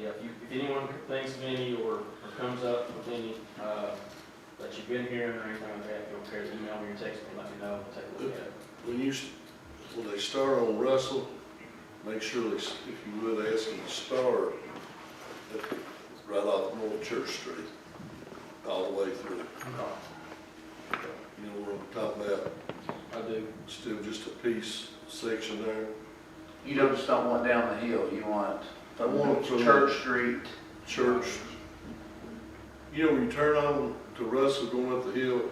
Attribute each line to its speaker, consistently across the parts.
Speaker 1: yeah, if you, if anyone thinks of any or, or comes up with any, uh, that you've been hearing or anything like that, feel free to email me or text me, let me know, I'll take a look at it.
Speaker 2: When you, s- when they start on Russell, make sure they, s- if you would, ask them to start at- right off North Church Street, all the way through. You know what I'm talking about?
Speaker 1: I do.
Speaker 2: Still just a piece section there.
Speaker 3: You don't just don't want down the hill, you want
Speaker 2: I want it from
Speaker 3: Church Street.
Speaker 2: Church. You know, when you turn on to Russell going up the hill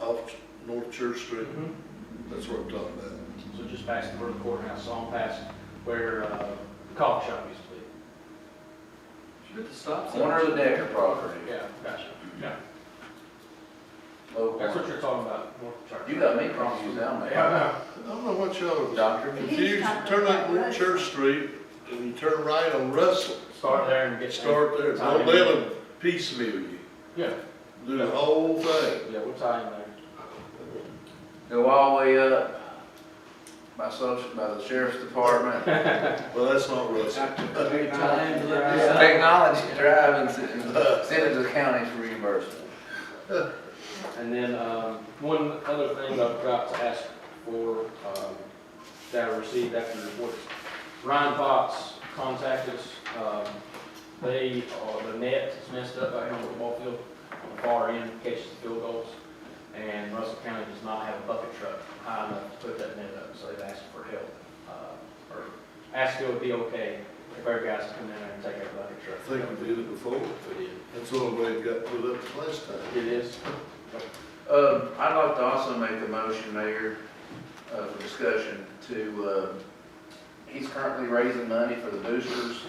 Speaker 2: off Ch- North Church Street, that's what I'm talking about.
Speaker 1: Mm-hmm. So just past the Burton courthouse, on past where, uh, the coffee shop used to be.
Speaker 3: Corner of the Decker property.
Speaker 1: Yeah, gotcha. Yeah.
Speaker 3: Local.
Speaker 1: That's what you're talking about, North Church.
Speaker 3: You got me confused down
Speaker 1: Yeah, I
Speaker 3: there.
Speaker 1: know.
Speaker 2: I don't know what y'all are
Speaker 3: Doctor,
Speaker 2: confused. Turn up North Church Street and you turn right on Russell.
Speaker 1: Start there and get.
Speaker 2: Start there, don't let them piecemeal you,
Speaker 1: Yeah,
Speaker 2: do the whole thing.
Speaker 1: yeah, we'll tie in there.
Speaker 3: go all the way up by social, by the sheriff's department.
Speaker 2: Well, that's not Russell.
Speaker 3: Technology drive and send send it to the county for reimbursement.
Speaker 1: And then, um, one other thing I forgot to ask for, um, that I received after the report, Ryan Fox contacted us, um, they, uh, the net is messed up out here on the football field, on the far end, catches the field goals, and Russell County does not have a bucket truck high enough to put that net up, so they've asked for help, uh, or asked if it would be okay if our guys come in there and take our bucket
Speaker 2: I
Speaker 1: truck.
Speaker 2: think we did it before.
Speaker 1: We did.
Speaker 2: That's the only way it got put up the last time.
Speaker 1: It is,
Speaker 3: Um, I'd like to also make a motion, Mayor, uh, for discussion to, uh, he's currently raising money for the boosters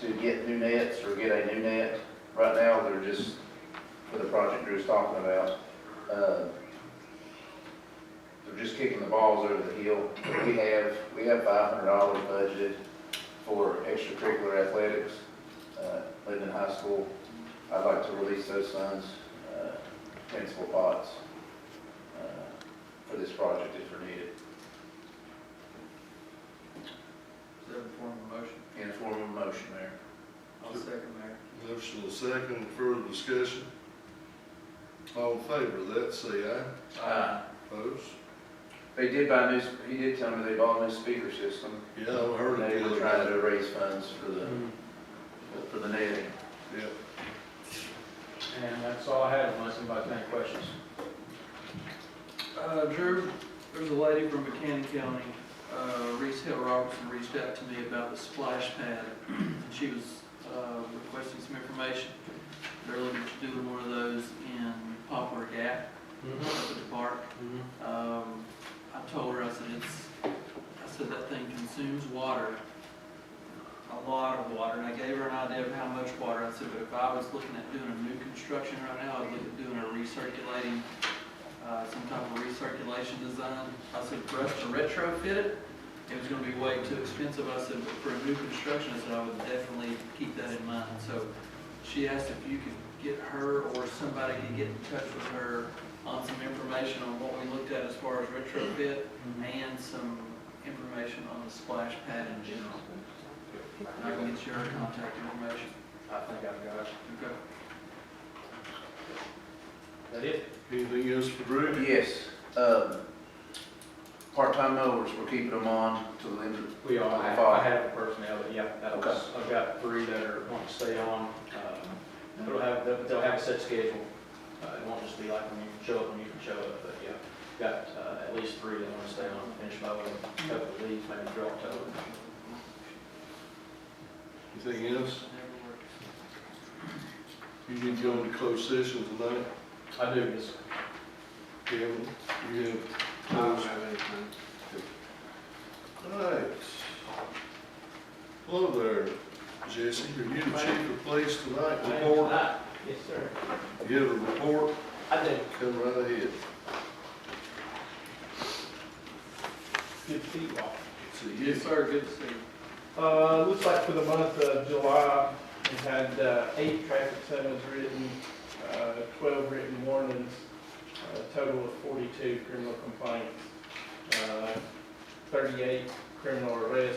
Speaker 3: to get new nets or get a new net. Right now, they're just for the project Drew's talking about. uh, They're just kicking the balls over the hill. We have, we have five hundred dollars budgeted for extracurricular athletics, uh, Linden High School. I'd like to release those funds, uh, principal pots uh, for this project if they're needed.
Speaker 4: Is that a form of motion?
Speaker 3: In form of a motion, Mayor.
Speaker 4: I'll second Mayor.
Speaker 2: Motion and second, further discussion. All in favor of that, say aye.
Speaker 3: Uh,
Speaker 2: Opposed?
Speaker 3: They did buy new, he did tell me they bought a new speaker system.
Speaker 2: Yeah, I heard
Speaker 3: They
Speaker 2: it the
Speaker 3: were
Speaker 2: other
Speaker 3: trying
Speaker 2: night.
Speaker 3: to raise funds for the,
Speaker 1: Mm-hmm.
Speaker 3: for the netting.
Speaker 2: Yeah.
Speaker 1: and that's all I had, unless anybody has any questions.
Speaker 4: Uh, Drew, there's a lady from McCann County, uh, Reese Hill Robertson reached out to me about the splash pad. She was, uh, requesting some information. They're looking to do one of those in Poplar Gap,
Speaker 1: Mm-hmm.
Speaker 4: up at the park. Um, I told her, I said, it's, I said, that thing consumes water, a lot of water, and I gave her an idea of how much water, I said, but if I was looking at doing a new construction right now, I'd look at doing a recirculating, uh, some type of recirculation design. I said, for us to retrofit it, it was gonna be way too expensive, I said, but for a new construction, I said, I would definitely keep that in mind, so she asked if you could get her or somebody could get in touch with her on some information on what we looked at as far as retrofit, and some information on the splash pad in general. And I can get your contact information.
Speaker 1: I think I've got it.
Speaker 4: Okay.
Speaker 1: That it?
Speaker 2: Anything else for Drew?
Speaker 3: Yes, um, part-time mowers, we're keeping them on till the end of,
Speaker 1: We are, I I have a personnel, but yeah, that was,
Speaker 3: Okay.
Speaker 1: I've got three that are, want to stay on. Um, They'll have, they'll they'll have a set schedule. Uh, It won't just be like when you show up, when you can show up, but yeah. Got uh, at least three that want to stay on, and finish mowing, couple of leaves, maybe drop toe.
Speaker 2: Anything else?
Speaker 4: Never works.
Speaker 2: You need to go into closed session tonight,
Speaker 1: I do this.
Speaker 2: Kevin? You have
Speaker 5: I don't have anything.
Speaker 2: Alright. Hello there, Jesse, are you the chief of police tonight, report?
Speaker 1: Yes, sir.
Speaker 2: You have a report,
Speaker 1: I do.
Speaker 2: come right ahead.
Speaker 5: Good to see you all.
Speaker 2: See you.
Speaker 4: Yes, sir, good to see you.
Speaker 5: Uh, looks like for the month of July, we had, uh, eight traffic summons written, uh, twelve written warnings, uh, a total of forty-two criminal complaints, uh, thirty-eight criminal arrests,